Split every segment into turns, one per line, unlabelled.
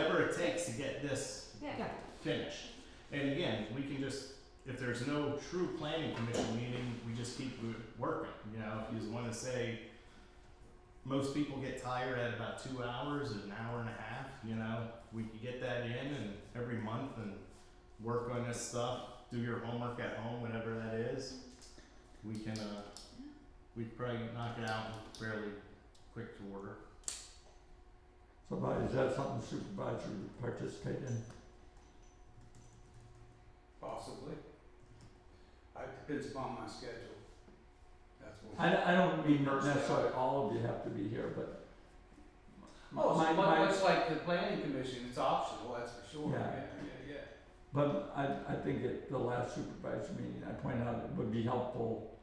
to get this
Yeah.
finished. And again, we can just, if there's no true planning commission meeting, we just keep wo- working, you know, if you just wanna say, most people get tired at about two hours, an hour and a half, you know, we can get that in and every month and work on this stuff, do your homework at home, whatever that is. We can, uh, we can probably knock it out fairly quick to order.
Somebody, is that something supervisor would participate in?
Possibly. I, depends upon my schedule. That's what.
I, I don't mean
First, yeah.
necessarily all of you have to be here, but.
Oh,
my-
so
my-
much, much like the planning commission, it's optional, that's for sure,
Yeah.
yeah, yeah, yeah.
But I, I think at the last supervisor meeting, I pointed out it would be helpful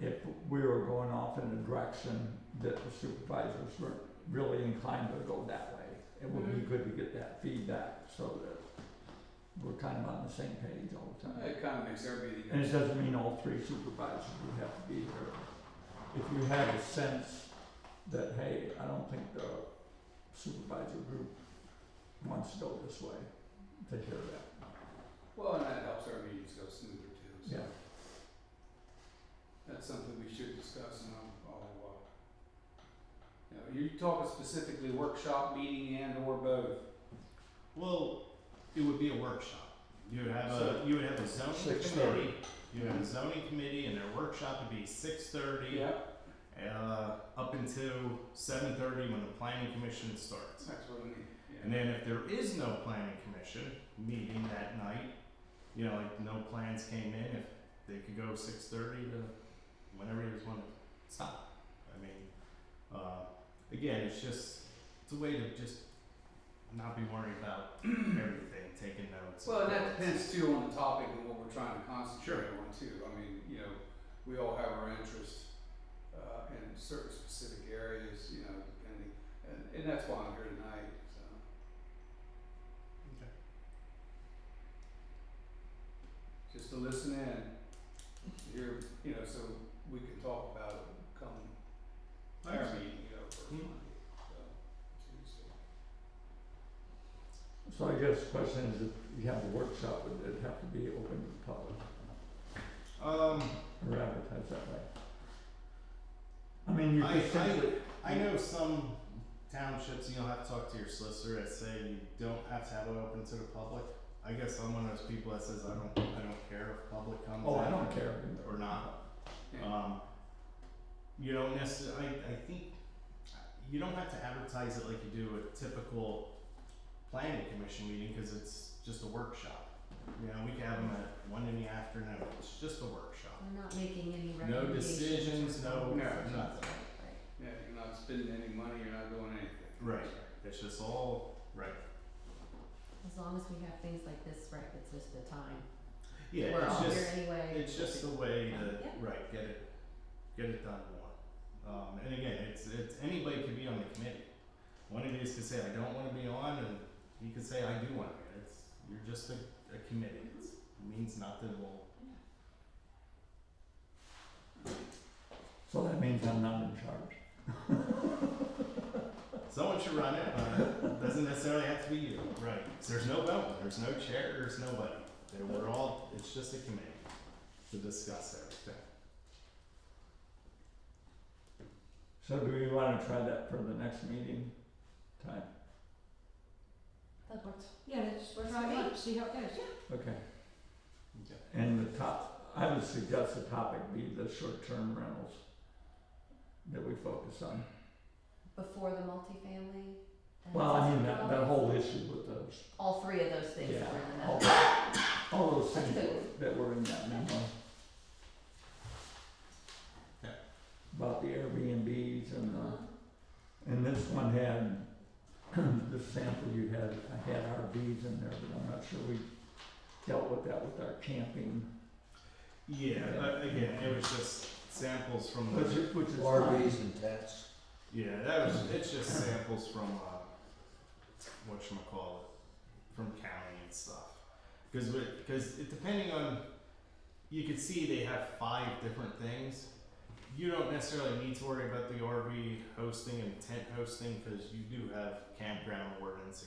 if we were going off in a direction that the supervisors weren't really inclined to go that way. It would be
Mhm.
good to get that feedback so that we're kind of on the same page all the time.
It kinda makes everybody.
And it doesn't mean all three supervisors would have to be here. If you have a sense that, hey, I don't think the supervisor group wants to go this way, to hear that.
Well, and that helps our meetings go smoother too, so
Yeah.
that's something we should discuss and I'll, I'll, uh. You know, you're talking specifically workshop, meeting and or both.
Well, it would be a workshop. You would have a, you would have a zoning
6:30.
committee, you would have a zoning committee and their workshop would be six thirty. Uh, up until seven thirty when the planning commission starts.
That's what I mean, yeah.
And then if there is no planning commission meeting that night, you know, like no plans came in, if they could go six thirty to whenever you just wanna stop. I mean, uh, again, it's just, it's a way to just not be worried about everything, taking notes.
Well, and that depends too on the topic and what we're trying to concentrate
Sure.
on too. I mean, you know, we all have our interests uh, in certain specific areas, you know, depending, and, and that's why I'm here tonight, so
Okay.
just to listen in, hear, you know, so we can talk about it come our
Nice.
meeting, you know, for
Mm.
Monday, so Tuesday.
So I guess the question is, if you have a workshop, would it have to be open to the public
Um,
or advertised that way? I mean, you
I-
could simply,
I know some townships, you'll have to talk to your solicitor that say you don't have to have it open to the public. I guess I'm one of those people that says I don't, I don't care if public comes
oh, I
in
don't care.
or not.
Yeah.
Um, you don't necessarily, I, I think, you don't have to advertise it like you do a typical planning commission meeting, cause it's just a workshop. You know, we can have them at one in the afternoon, it's just a workshop.
We're not making any
No
recommendations.
decisions, no,
No.
nothing.
Right.
Yeah, you're not spending any money, you're not doing anything.
Right. It's just all, right.
As long as we have things like this, right, it's just the time.
Yeah,
We're
it's
all
just,
here anyway.
It's just the way
Yeah.
that,
Yeah.
right, get it, get it done more. Um, and again, it's, it's, anybody could be on the committee. One of these could say, I don't wanna be on, and you could say, I do wanna be, it's, you're just a, a committee, it's, it means nothing, well,
So that means I'm not in charge.
someone should run it, but it doesn't necessarily have to be you, right? So there's no vote, there's no chair, there's nobody, They we're all, it's just a committee to discuss everything.
So do we wanna try that for the next meeting time?
That works.
Yeah, let's
Works
try
for
it
me.
out, see how it goes.
Okay.
Okay.
And the top, I would suggest the topic be the short-term rentals that we focus on.
Before the multifamily and
Well, I mean,
accessory
that, that
dwellings?
whole issue with those,
All three of those things
Yeah.
were in the
all,
memo.
all those
That's
things
good.
that were in that memo.
Yeah.
About the Airbnbs and
Uh-huh.
the, and this one had, the sample you had, I had RVs in there, but I'm not sure we dealt with that with our camping,
Yeah,
Yeah.
but again, it was just samples from the.
which is, which is fine.
RVs and tents.
Yeah, that was it's just samples from uh, what you call it, from county and stuff. Because because depending on, you can see they have five different things. You don't necessarily need to worry about the RV hosting and tent hosting because you do have campground ordinance